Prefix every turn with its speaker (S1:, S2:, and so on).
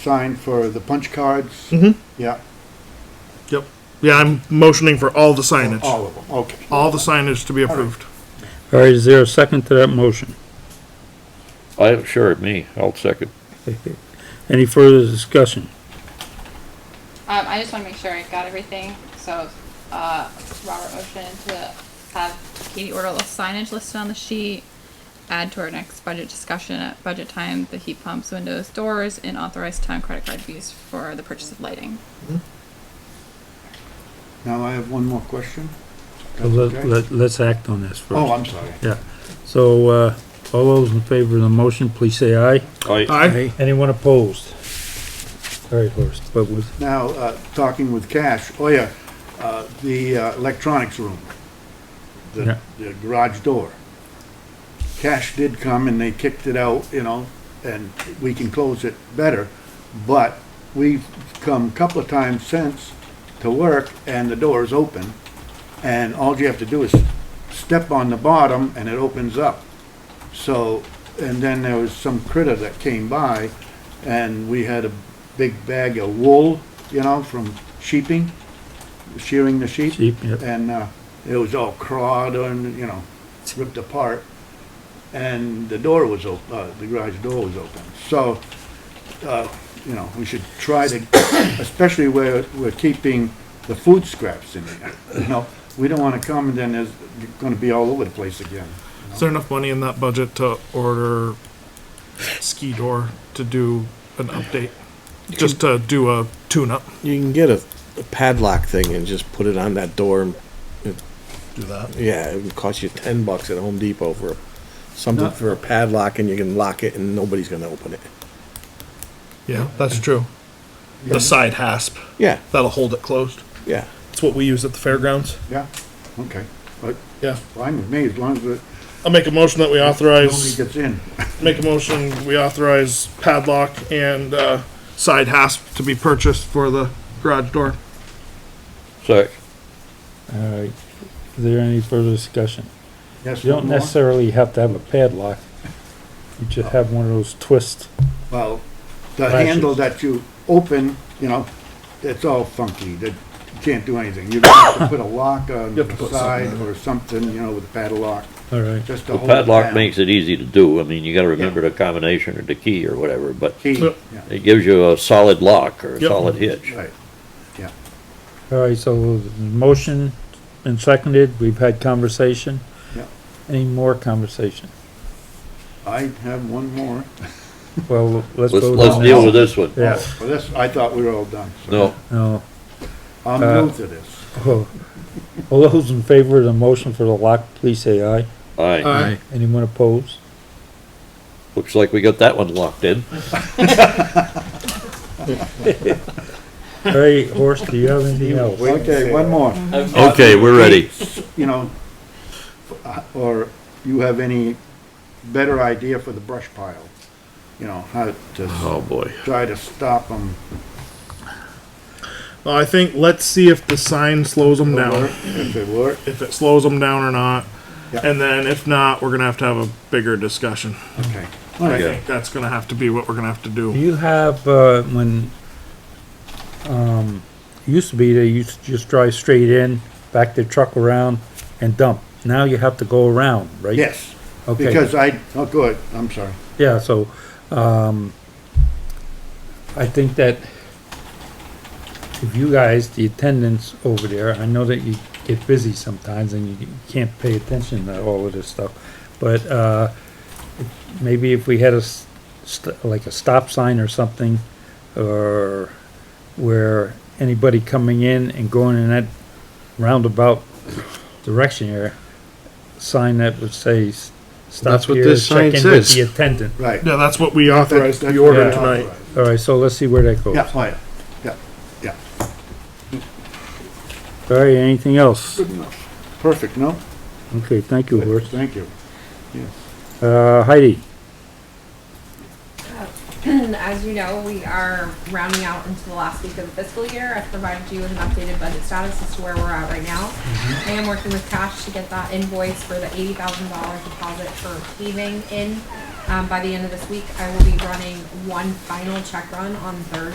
S1: sign for the punch cards?
S2: Mhm.
S1: Yeah,
S2: Yep. Yeah, I'm motioning for all the signage.
S1: all of them, okay.
S2: All the signage to be approved.
S3: All right, is there a second to that motion?
S4: I, sure, me, I'll second.
S3: Any further discussion?
S5: Um, I just wanna make sure I got everything, so, uh, Robert motioned to have Katie order a little signage listed on the sheet. Add to our next budget discussion at budget time, the heat pumps, windows, doors, and authorize town credit card fees for the purchase of lighting.
S1: Now I have one more question. That's okay?
S3: Let, let, let's act on this
S1: Oh,
S3: first.
S1: I'm sorry.
S3: So, uh, all those in favor of the motion, please say aye.
S4: I,
S2: Aye.
S3: Anyone opposed? All right, Horace, but with,
S1: Now, uh, talking with Cash, oh yeah, uh, the uh, electronics room,
S3: Yeah.
S1: the the garage door. Cash did come and they kicked it out, you know, and we can close it better, but we've come a couple of times since to work and the door is open, and all you have to do is step on the bottom and it opens up. So, and then there was some critter that came by, and we had a big bag of wool, you know, from sheeping, shearing the sheep.
S3: Sheep, yep.
S1: And, uh, it was all clawed and, you know, ripped apart. And the door was op, uh, the garage door was open. So, uh, you know, we should try to, especially where we're keeping the food scraps in there, you know? We don't wanna come and then there's gonna be all over the place again.
S2: Is there enough money in that budget to order Ski Door to do an update? Just to do a tune-up?
S6: You can get a, a padlock thing and just put it on that door. And,
S2: Do that.
S6: yeah, it would cost you ten bucks at Home Depot for something for a padlock, and you can lock it, and nobody's gonna open it.
S2: Yeah, that's true. The side hasp,
S6: Yeah,
S2: that'll hold it closed.
S6: yeah.
S2: It's what we use at the fairgrounds.
S1: Yeah, okay, but
S2: Yeah.
S1: fine with me, as long as it
S2: I'll make a motion that we
S1: only
S2: authorize,
S1: gets in.
S2: make a motion, we authorize padlock and, uh, side hasp to be purchased for the garage door.
S4: sec,
S3: all right. Is there any further discussion?
S1: Yes,
S3: You don't
S1: one more?
S3: necessarily have to have a padlock. You just have one of those twist.
S1: Well, the
S3: Latches.
S1: handle that you open, you know, it's all funky, that, you can't do anything. You're gonna have to put a lock on
S2: You have
S1: the
S2: to put something
S1: side
S2: on
S1: or something, you know, with a padlock,
S3: All right.
S1: just to
S4: the
S1: hold it down.
S4: padlock makes it easy to do, I mean, you gotta remember the combination or the key or whatever, but
S1: Key,
S2: Yep.
S1: yeah,
S4: it gives you a solid lock or a
S2: Yep.
S4: solid hitch.
S1: right.
S3: All right, so the motion been seconded. We've had conversation.
S1: Yeah.
S3: Any more conversation?
S1: I have one more.
S3: Well, let's
S4: Let's,
S3: go.
S4: let's
S3: down.
S4: deal with this one.
S3: Yeah,
S1: Oh, Well, this, I thought we were all done, so.
S4: No,
S3: no.
S1: I'm
S3: Uh,
S1: new to this.
S3: Oh. All those in favor of the motion for the lock, please say aye.
S4: aye,
S2: Aye.
S3: Anyone opposed?
S4: looks like we got that one locked in.
S3: All right, Horst, do you have anything else?
S1: Okay, one more.
S4: Okay, we're ready.
S1: You know, uh, or you have any better idea for the brush pile? You know, how to
S4: Oh, boy.
S1: try to stop them.
S2: Well, I think, let's see if the sign slows them down.
S1: If it were,
S2: if it slows them down or not.
S1: Yeah.
S2: And then if not, we're gonna have to have a bigger discussion.
S1: okay.
S2: I
S1: All right.
S2: think that's gonna have to be what we're gonna have to
S3: Do
S2: do.
S3: you have, uh, when, um, it used to be they used to just drive straight in, back their truck around and dump. Now you have to go around, right?
S1: Yes,
S3: Okay.
S1: because I, oh, good, I'm sorry.
S3: Yeah, so, um, I think that if you guys, the attendants over there, I know that you get busy sometimes and you can't pay attention to all of this stuff, but, uh, maybe if we had a, s- st- like a stop sign or something, or where anybody coming in and going in that roundabout direction here, sign that would say, s- stop
S7: That's what
S3: here,
S7: this
S3: check
S7: sign
S3: in with
S7: says.
S3: the attendant.
S1: Right.
S2: Yeah, that's what we authorized the
S3: Yeah.
S2: order tonight.
S3: All right, so let's see where that goes.
S1: Yeah, oh, yeah, yeah, yeah,
S3: All right, anything else?
S1: good enough. Perfect, no?
S3: Okay, thank you, Horst.
S1: Thank you.
S3: Uh, Heidi?
S8: As you know, we are rounding out into the last week of the fiscal year. I've provided you with an updated budget status as to where we're at right now. I am working with Cash to get that invoice for the eighty thousand dollar deposit for paving in Um, by the end of this week, I will be running one final check run on Thursday.